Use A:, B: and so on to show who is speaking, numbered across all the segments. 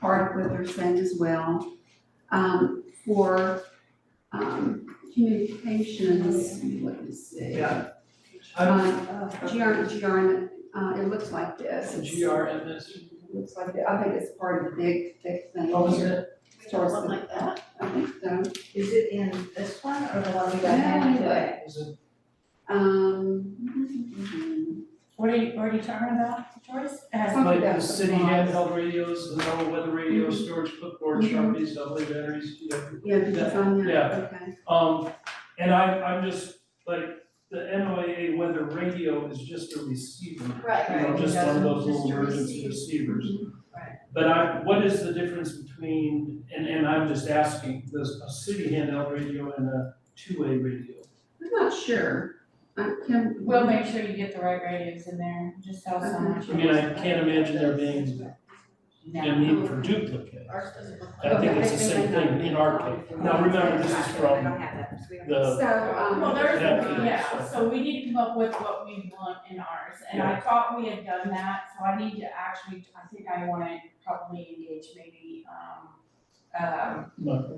A: hard with her send as well. Um, for, um, communications, let me see.
B: Yeah.
A: Uh, GR, GR, uh, it looks like this. It's-
B: GRMS,
A: Looks like, it. I think it's part of the big, thick thing.
B: what was
A: here.
B: Oh, it?
A: Starts
C: Something
A: with-
C: like that?
A: I think so.
C: Is it in this one or the one we
A: got
C: got
A: handed
C: handed
A: away?
B: Is it,
A: Um.
C: What are you, what are you talking about, Joyce? Uh,
A: Something
B: like the
A: about
B: city
A: supplies.
B: handheld radios, the normal weather radio,
C: Mm-hmm.
B: storage clipboard,
A: Mhm.
B: sharpies, double A batteries, you know.
A: Yeah, did you find that?
B: Yeah.
A: Okay.
B: Um, and I, I'm just, like, the NOAA weather radio is just a receiver,
C: Right,
B: you
C: right.
B: know, just one of those
C: Just
B: little
C: to
B: emergency
C: receive.
B: receivers.
C: Right.
B: But I, what is the difference between, and, and I'm just asking, this, a city handheld radio and a two-way radio?
A: I'm not sure. I can.
D: We'll make sure you get the right radios in there, just tell someone.
B: I mean, I can't imagine there being a need for duplicate.
C: Ours doesn't look like.
B: I think it's the same thing in our case. Now, remember, this is from the,
A: So, um.
D: Well, there's,
B: Yeah.
D: yeah, so we need to come up with what we want in ours, and I thought we had done that, so I need to actually, I think I wanna probably engage maybe, um, um,
B: no,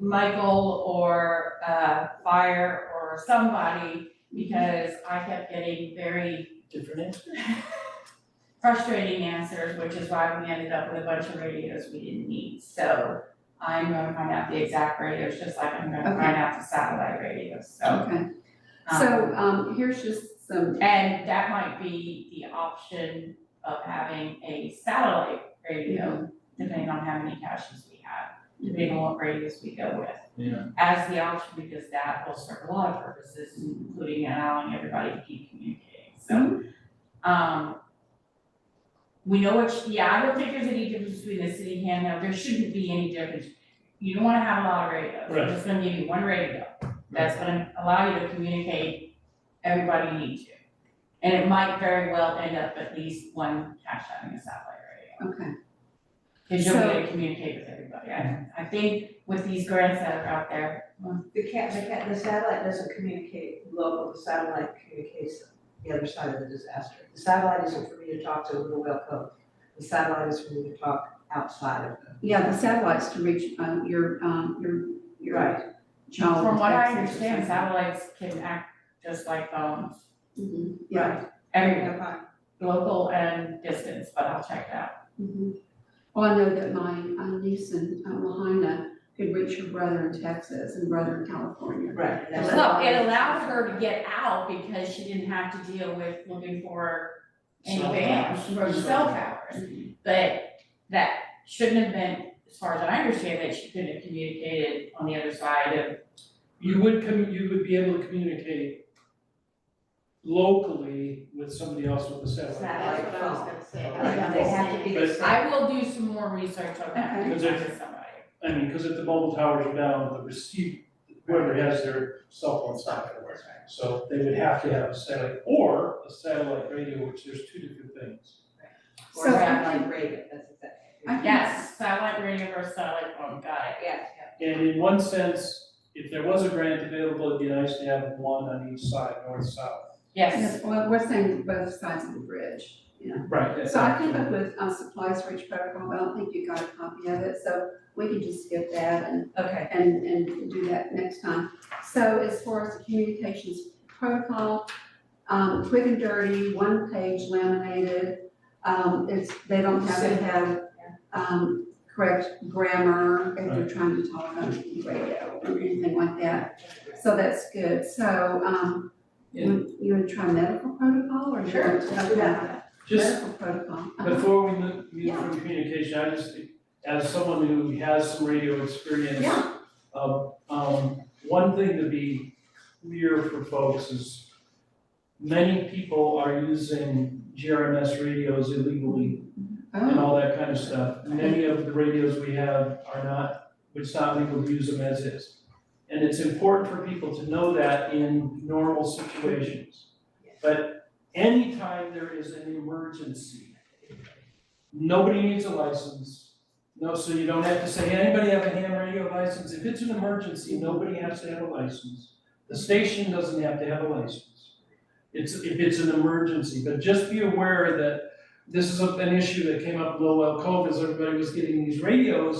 D: Michael or, uh, Fire or somebody, because I kept getting very
B: different answer.
D: frustrating answers, which is why we ended up with a bunch of radios we didn't need. So I'm gonna find out the exact radios, just like I'm gonna
A: Okay.
D: find out the satellite radios, so.
A: Okay,
D: um,
A: so, um, here's just some,
D: And that might be the option of having a satellite radio,
A: Mm-hmm.
D: depending on how many caches we have, depending on what radios we go with.
B: Yeah.
D: As the option, because that will serve a lot of purposes, including allowing everybody to keep communicating, so. Um. We know which, yeah, I don't think there's any difference between the city handheld, there shouldn't be any difference. You don't wanna have a lot of radios,
B: Right.
D: I'm just gonna give you one radio, that's gonna allow you to communicate everybody you need to. And it might very well end up at least one cache having a satellite radio.
A: okay,
D: Cause you'll be
A: So-
D: able to communicate with everybody, I, I think with these grants that are out there,
C: The cat, the cat, the satellite doesn't communicate local, the satellite communicates the other side of the disaster. The satellite isn't for me to talk to Little Well Cove. The satellite is for me to talk outside of the.
A: yeah, the satellites to reach, um, your, um, your, your
C: Right,
A: child.
D: from what I
A: protection
D: understand,
A: system.
D: satellites can act just like phones.
A: Mhm, yeah.
D: Every,
C: okay.
D: local and distance, but I'll check that.
A: mhm. Well, I know that my uh, niece in uh, Lahaina could reach her brother in Texas and brother in California.
C: Right, and that's-
D: Well, it allowed her to get out because she didn't have to deal with looking for
B: Cell
D: anything else,
B: towers.
D: for cell towers. Mm-hmm. But that shouldn't have been, as far as I understand, that she couldn't have communicated on the other side of,
B: You would com, you would be able to communicate locally with somebody else with a satellite.
C: That's what I was
D: gonna say.
C: oh, Yeah, they have to be the same.
D: I will do some more research on that,
A: Okay.
D: and talk to somebody.
B: I mean, because if the mobile tower's down, the receive, whoever has their cell phone's not gonna work. So they would have to have a satellite, or a satellite radio, which there's two different things.
C: Or
A: So I
C: satellite radio, that's
A: I
C: exactly.
A: can-
D: Yes, satellite radio versus satellite phone, got it.
C: Yes,
B: And in one sense, if there was a grant available, it'd be nice to have one on each side, north, south.
D: Yes,
A: Yes, well, we're saying both sides of the bridge, you know.
B: Right.
A: So I came up with, uh, supplies for each protocol, but I don't think you got a copy of it, so we can just skip that and
C: okay.
A: and, and do that next time. So as far as the communications protocol, um, quick and dirty, one page laminated. Um, it's, they don't have to have, um, correct grammar if they're trying to talk on the radio or anything like that. So that's good. So, um, you, you wanna try medical protocol or?
C: Sure, let's do that.
B: Just
A: Medical protocol. Uh-huh.
B: before we move, move
A: Yeah.
B: from communication, I just, as someone who has some radio experience.
A: Yeah.
B: Um, um, one thing to be clear for folks is many people are using GRMS radios illegally and
A: Oh,
B: all that kind of stuff. Many of the radios we have are not, it's not legal to use them as is. And it's important for people to know that in normal situations. But anytime there is an emergency, nobody needs a license. No, so you don't have to say, anybody have a ham radio license? If it's an emergency, nobody has to have a license. The station doesn't have to have a license. It's, if it's an emergency, but just be aware that this is a- an issue that came up in Lowell Cove, is everybody was getting these radios